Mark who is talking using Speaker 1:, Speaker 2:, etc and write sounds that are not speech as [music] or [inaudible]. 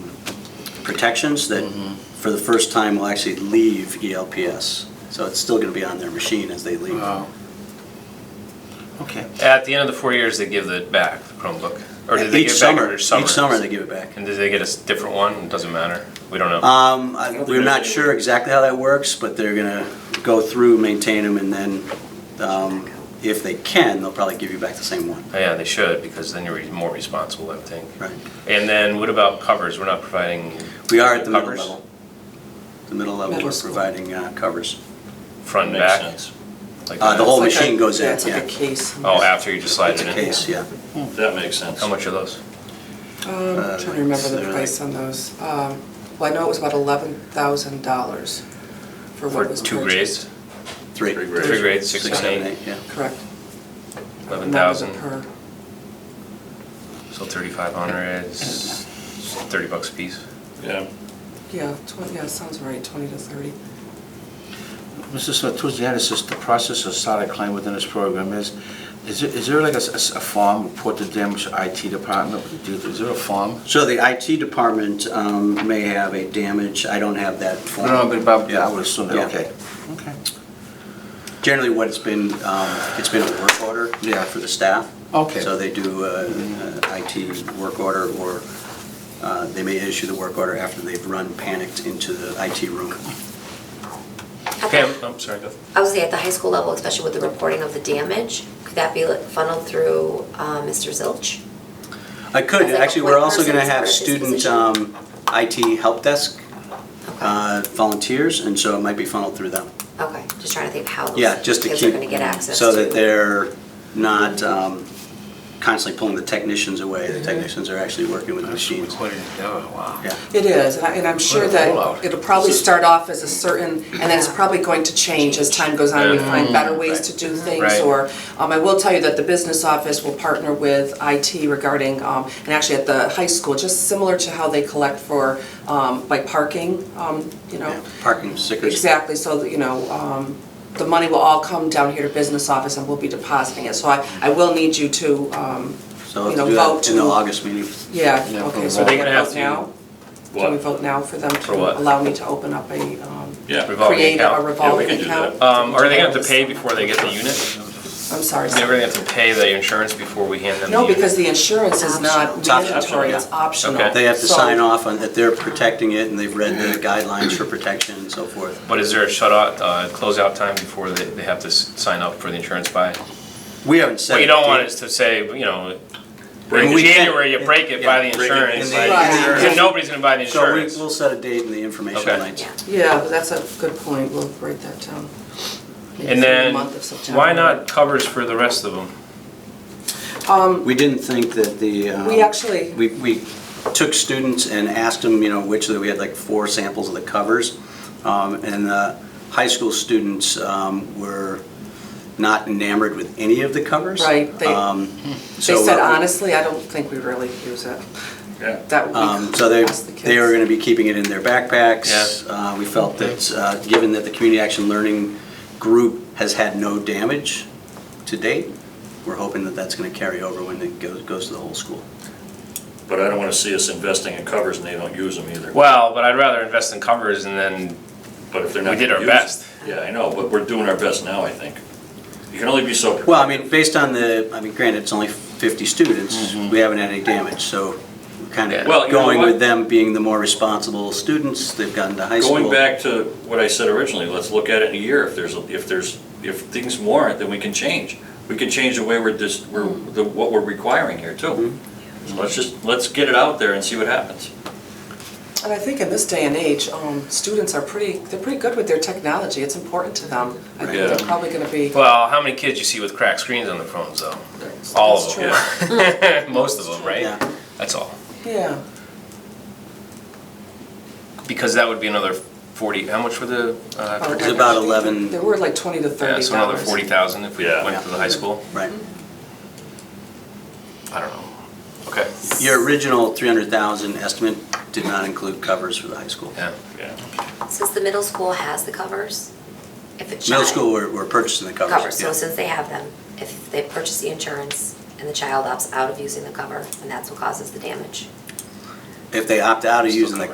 Speaker 1: protections that,
Speaker 2: Mm-hmm.
Speaker 1: for the first time, will actually leave E ELPS. So it's still going to be on their machine as they leave.
Speaker 3: Wow. Um, Okay.
Speaker 2: At the end of the four years, they give it back, the Chromebook. Or do they
Speaker 1: Each
Speaker 2: give it back
Speaker 1: summer,
Speaker 2: every summer?
Speaker 1: each summer they give it back.
Speaker 2: And do they get a s- different one? It doesn't matter. We don't know.
Speaker 1: Um, I- we're not sure exactly how that works, but they're gonna go through, maintain them, and then, um, if they can, they'll probably give you back the same one.
Speaker 2: Yeah, they should, because then you're re- more responsible, I would think.
Speaker 1: Right.
Speaker 2: And then what about covers? We're not providing.
Speaker 1: We are at the middle
Speaker 2: covers?
Speaker 1: level. The middle level,
Speaker 4: Middle
Speaker 1: we're
Speaker 4: school.
Speaker 1: providing, uh, covers.
Speaker 2: Front and
Speaker 5: Makes
Speaker 2: back?
Speaker 5: sense.
Speaker 2: Like
Speaker 1: Uh, the
Speaker 2: that?
Speaker 1: whole
Speaker 4: It's like a-
Speaker 1: machine goes in,
Speaker 4: It's like
Speaker 1: yeah.
Speaker 4: a case.
Speaker 2: Oh, after you just slide
Speaker 1: It's
Speaker 2: it
Speaker 1: a
Speaker 2: in?
Speaker 1: case, yeah.
Speaker 5: That makes sense.
Speaker 2: How much are those?
Speaker 1: Uh,
Speaker 4: Um, I'm trying to remember the
Speaker 1: so-
Speaker 4: price on those. Um, Well, I know it was about eleven thousand dollars for
Speaker 2: For
Speaker 4: what was
Speaker 2: two
Speaker 4: purchased.
Speaker 2: grades?
Speaker 1: Three.
Speaker 5: Three
Speaker 2: Three
Speaker 5: grades.
Speaker 2: grades, six and
Speaker 1: seven,
Speaker 2: eight,
Speaker 1: Yeah.
Speaker 4: Correct.
Speaker 2: eleven thousand,
Speaker 4: Per,
Speaker 2: so thirty-five hundred is thirty bucks a piece.
Speaker 5: Yeah.
Speaker 4: yeah, twenty, yeah, sounds right, twenty to thirty.
Speaker 3: Mrs. Smith, towards the end, it says the process of starting a claim within this program is, is there- is there like a s- a s- a form reported to them, which IT department, would do? is there a form?
Speaker 1: So the IT department, um, may have a damage, I don't have that form.
Speaker 3: No, but about, yeah, I
Speaker 1: Yeah.
Speaker 3: would assume that,
Speaker 1: Yeah.
Speaker 3: okay. Okay.
Speaker 1: Generally, what it's been, um, it's been a work order.
Speaker 3: Yeah.
Speaker 1: For the staff.
Speaker 3: Okay.
Speaker 1: So they do uh, uh, IT work order, or uh, they may issue the work order after they've run panicked into the IT room.
Speaker 2: Pam, I'm sorry, go.
Speaker 6: I would say at the high school level, especially with the reporting of the damage, could that be like, funneled through uh, Mr. Zilch?
Speaker 1: I could,
Speaker 6: As like a
Speaker 1: actually,
Speaker 6: point
Speaker 1: we're also going to
Speaker 6: person for
Speaker 1: have
Speaker 6: this
Speaker 1: student
Speaker 6: position.
Speaker 1: um, IT help desk
Speaker 6: Okay,
Speaker 1: uh, volunteers, and so it might be funneled through them.
Speaker 6: okay, just trying to think how
Speaker 1: Yeah,
Speaker 6: those
Speaker 1: just to keep.
Speaker 6: kids are gonna get access to.
Speaker 1: So that they're not um, constantly pulling the technicians away. The technicians are actually working with the machines.
Speaker 3: wow.
Speaker 1: Yeah.
Speaker 4: It is, and I- and I'm sure
Speaker 3: Quite a rollout.
Speaker 4: that it'll probably start off as a certain, and then it's probably going to change as time goes on. We
Speaker 2: Yeah.
Speaker 4: find better ways
Speaker 1: Right.
Speaker 4: to do things,
Speaker 2: Right.
Speaker 4: or, um, I will tell you that the business office will partner with IT regarding, um, and actually at the high school, just similar to how they collect for, um, like parking, um, you know.
Speaker 1: Yeah, Parking stickers.
Speaker 4: Exactly, so, that, you know, um, the money will all come down here to business office and we'll be depositing it. So I, I will need you to, um,
Speaker 1: So
Speaker 4: you
Speaker 1: we'll
Speaker 4: know,
Speaker 1: do
Speaker 4: vote
Speaker 1: that
Speaker 4: to.
Speaker 1: in the August meeting.
Speaker 4: Yeah,
Speaker 3: Yeah,
Speaker 4: okay,
Speaker 3: probably
Speaker 4: so
Speaker 3: vote.
Speaker 4: we
Speaker 2: They're gonna have
Speaker 4: vote
Speaker 2: to-
Speaker 4: now? Can we
Speaker 5: What?
Speaker 4: vote now for them
Speaker 2: For what?
Speaker 4: to allow me to open up a, um,
Speaker 5: Yeah.
Speaker 2: Revolving
Speaker 4: create a
Speaker 2: account.
Speaker 5: Yeah, we
Speaker 4: revolving
Speaker 5: can do
Speaker 4: account?
Speaker 2: Um, are they gonna have to pay before they get the unit?
Speaker 4: I'm sorry.
Speaker 2: They're gonna have to pay the insurance before we hand them the
Speaker 4: No,
Speaker 2: unit?
Speaker 4: because the insurance is not
Speaker 1: It's optional.
Speaker 4: mandatory, it's
Speaker 1: Yeah.
Speaker 4: optional.
Speaker 2: Okay.
Speaker 1: They have to
Speaker 4: So-
Speaker 1: sign off on that they're protecting it and they've read
Speaker 4: [clears throat]
Speaker 1: the guidelines for protection and so forth.
Speaker 2: But is there a shut out, uh, closeout time before they, they have to s- sign up for the insurance buy?
Speaker 1: We haven't said.
Speaker 2: What you don't
Speaker 1: it.
Speaker 2: want is to say, you know,
Speaker 1: Break
Speaker 2: in
Speaker 1: it.
Speaker 2: January, you break it, buy the
Speaker 1: Yeah, break it
Speaker 2: insurance.
Speaker 1: and
Speaker 4: buy the
Speaker 2: And
Speaker 4: insurance.
Speaker 2: nobody's gonna buy the
Speaker 1: So we,
Speaker 2: insurance.
Speaker 1: we'll set a date in the information
Speaker 2: Okay.
Speaker 1: night.
Speaker 6: Yeah.
Speaker 4: Yeah, but that's a good point, we'll write that down. Maybe
Speaker 2: And
Speaker 4: for the
Speaker 2: then,
Speaker 4: month of September.
Speaker 2: why not covers for the rest of them?
Speaker 1: We didn't think that the. um,
Speaker 4: We actually-
Speaker 1: We, we took students and asked them, you know, which, we had like four samples of the covers. Um, And the high school students um, were not enamored with any of the covers.
Speaker 4: Right, they-
Speaker 1: Um,
Speaker 4: They
Speaker 1: so what
Speaker 4: said
Speaker 1: we-
Speaker 4: honestly, I don't think we really use it.
Speaker 5: Yeah.
Speaker 4: That we
Speaker 1: Um, So they,
Speaker 4: ask the kids.
Speaker 1: they were going to be keeping it in their backpacks.
Speaker 2: Yeah.
Speaker 1: Uh, We felt that, uh, given that the community action learning group has had no damage to date, we're hoping that that's going to carry over when it goes, goes to the whole school.
Speaker 5: But I don't want to see us investing in covers and they don't use them either.
Speaker 2: Well, but I'd rather invest in covers and then,
Speaker 5: But if they're
Speaker 2: We
Speaker 5: not.
Speaker 2: did
Speaker 5: gonna
Speaker 2: our
Speaker 5: use them-
Speaker 2: best.
Speaker 5: Yeah, I know, but we're doing our best now, I think. You can only be so.
Speaker 1: Well, I mean, based on the, I mean, granted, it's only 50 students, we haven't had any damage, so we're kind of
Speaker 5: Mm-hmm. Well, you know
Speaker 1: going
Speaker 5: what?
Speaker 1: with them being the more responsible students, they've gotten to high school.
Speaker 5: Going back to what I said originally, let's look at it in a year. If there's, if there's, if things warrant, then we can change. We can change the way we're just, we're, the- what we're requiring here too.
Speaker 2: Mm-hmm.
Speaker 5: So let's just, let's get it out there and see what happens.
Speaker 4: And I think in this day and age, um, students are pretty, they're pretty good with their technology. It's important to them. I think
Speaker 5: Yeah.
Speaker 4: they're probably going to be.
Speaker 2: well, how many kids you see with cracked screens on their phones though? All of
Speaker 4: That's
Speaker 2: them, [laughs] Most of them, right?
Speaker 1: Yeah.
Speaker 2: That's all.
Speaker 4: true. Yeah.
Speaker 2: Because that would be another forty, how much were the, uh, I
Speaker 4: Oh,
Speaker 2: forget.
Speaker 1: It's about 11.
Speaker 4: There were like 20 to 30
Speaker 2: yeah,
Speaker 4: dollars.
Speaker 2: so another forty thousand if we
Speaker 5: Yeah.
Speaker 2: went to the high school?
Speaker 1: Right.
Speaker 2: I don't know. Okay,
Speaker 1: Your original 300,000 estimate did not include covers for the high school.
Speaker 2: yeah.
Speaker 5: Yeah.
Speaker 6: Since the middle school has the covers, if it's.
Speaker 1: Middle school, we're, we're purchasing the covers.
Speaker 6: Covers, so
Speaker 1: yeah.
Speaker 6: since they have them, if they purchase the insurance and the child opts out of using the cover, and that's what causes the damage.
Speaker 1: If they opt out of using the